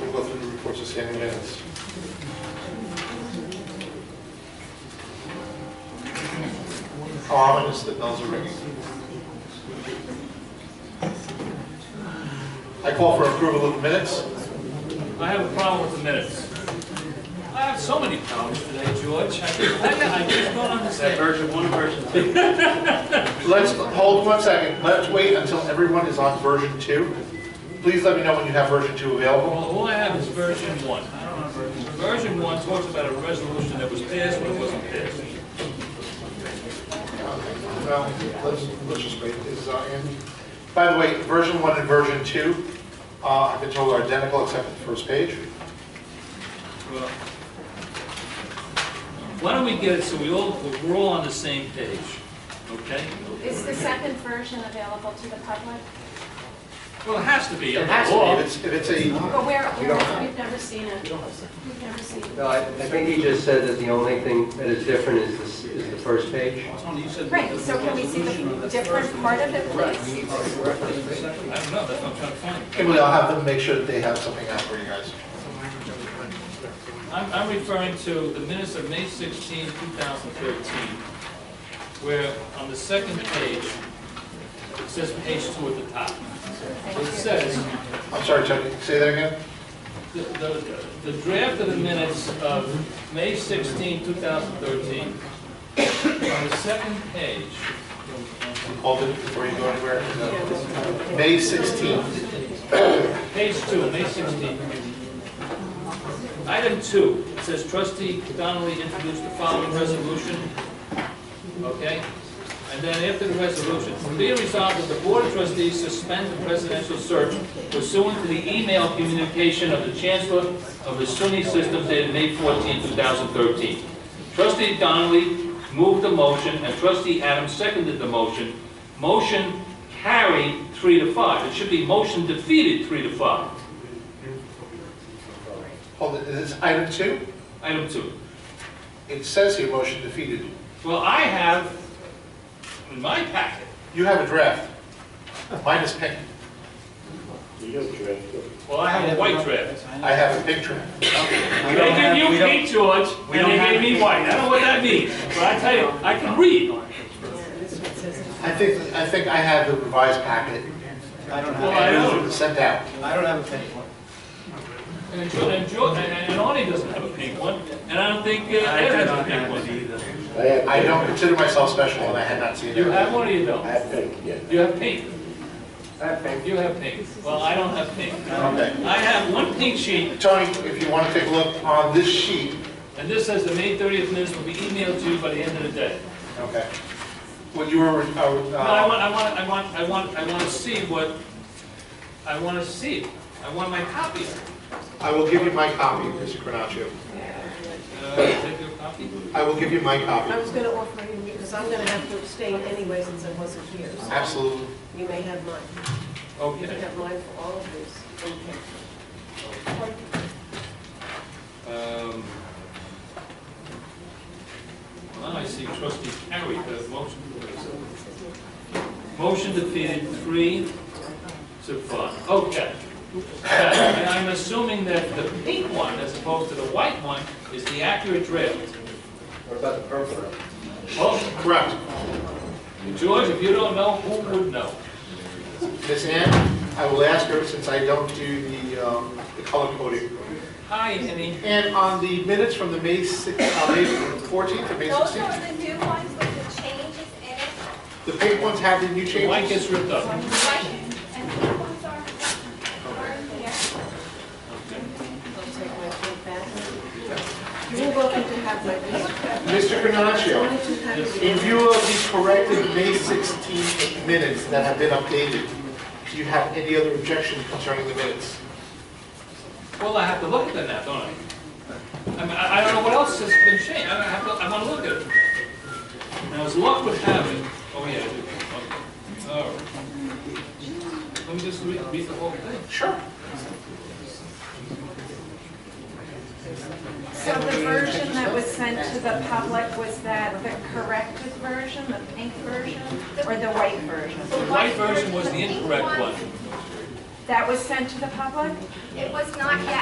reports of standing minutes. How Ominous that bells are ringing. I call for approval of the minutes. I have a problem with the minutes. I have so many problems today, George. I I just don't understand. version one, version two. Let's, hold one second, let's wait until everyone is on version two. Please let me know when you have version two available. Well, all I have is version one. I don't have version two. Version one talks about a resolution that was passed but it wasn't passed. Well, let's, let's just wait, is, uh, Andy? By the way, version one and version two, uh, I've been told are identical except for the first page. Well, Why don't we get it so we all, we're all on the same page, okay? Is the second version available to the public? Well, it has to be. It has to be, if it's, if it's a, But where, We don't where, have- we've never seen it. We've never seen it. No, I I think he just said that the only thing that is different is this, is the first page. Right, so can we see the different part of it, please? I don't know, that's what I'm trying to find. Kimberly, I'll have them make sure that they have something out for you guys. I'm, I'm referring to the minutes of May 16, 2013, where on the second page, it says page two at the top. It says, I'm sorry, Chuck, say that again? the, the- the draft of the minutes of May 16, 2013, on the second page, Hold it before you go anywhere. May 16th, page two, May 16. Item two, it says trustee Donnelly introduced the following resolution okay? And then after the resolution, be it resolved that the Board of Trustees suspend the presidential search pursuant to the email communication of the Chancellor of the SUNY System dated May 14, 2013. Trustee Donnelly moved the motion, and Trustee Adams seconded the motion. Motion carried three to five. It should be motion defeated three to five. hold it, is this item two? Item two. It says here, motion defeated. Well, I have in my packet You have a draft. Mine is pink. Well, I have a white draft. I have a pink draft. They give you pink, George, we and don't they have gave me pink. white. I don't know what that means, but I tell you, I can read. I think, I think I have the revised packet. I don't Well, I have, and it don't. was Sent out. I don't have a penny for it. And George, and George, and- and Arnie doesn't have a pink one, and I don't think uh, Ed has a pink one. either. I don't consider myself special and I had not seen it. You have one or you don't? have pink, yeah. You have pink. You have pink. Well, I don't have pink. Okay. I have one pink sheet, Tony, if you want to take a look on this sheet, and this says the May 30th minutes will be emailed to you by the end of the day. okay, what you were, uh, No, I uh, want, I want, I want, I want, I want to see what, I want to see it. I want my copy. I will give you my copy, Mr. Cronaccio. Uh, take your copy. I will give you my copy, I was going to offer you, because I'm going to have to abstain anyway since I wasn't here. so absolutely. You may have mine. You can Okay. have mine for all of this. Um, Now I see trustee Carey, the motion, motion defeated three to five. Okay. Yeah, And I'm assuming that the pink one, as opposed to the white one, is the accurate draft. What about the purple? Well, Correct. George, if you don't know, who would know? Miss Ann, I will ask her, since I don't do the, um, the color coding. Hi, Annie. And on the minutes from the May six, uh, May fourteenth or May Those are sixteenth, the new ones with the changes in it, the pink ones have the new The white changes. gets ripped up. right? And the new ones are, are here. I'll take my plate back. You're welcome to have my piece. Mr. Only Cronaccio, two packages. in view of the corrected May sixteenth minutes that have been updated, do you have any other objection concerning the minutes? Well, I have to look at them now, don't I? I mean, I I don't know what else has been changed, I have to, I want to look at it. Now, as luck would have it, oh, yeah, I do. Okay. All right. Let me just read, read the whole thing. Sure. So the version that was sent to the public, was that the corrected version, the pink version, or the white version? The white version was the incorrect one. That was sent to the public? It was not yet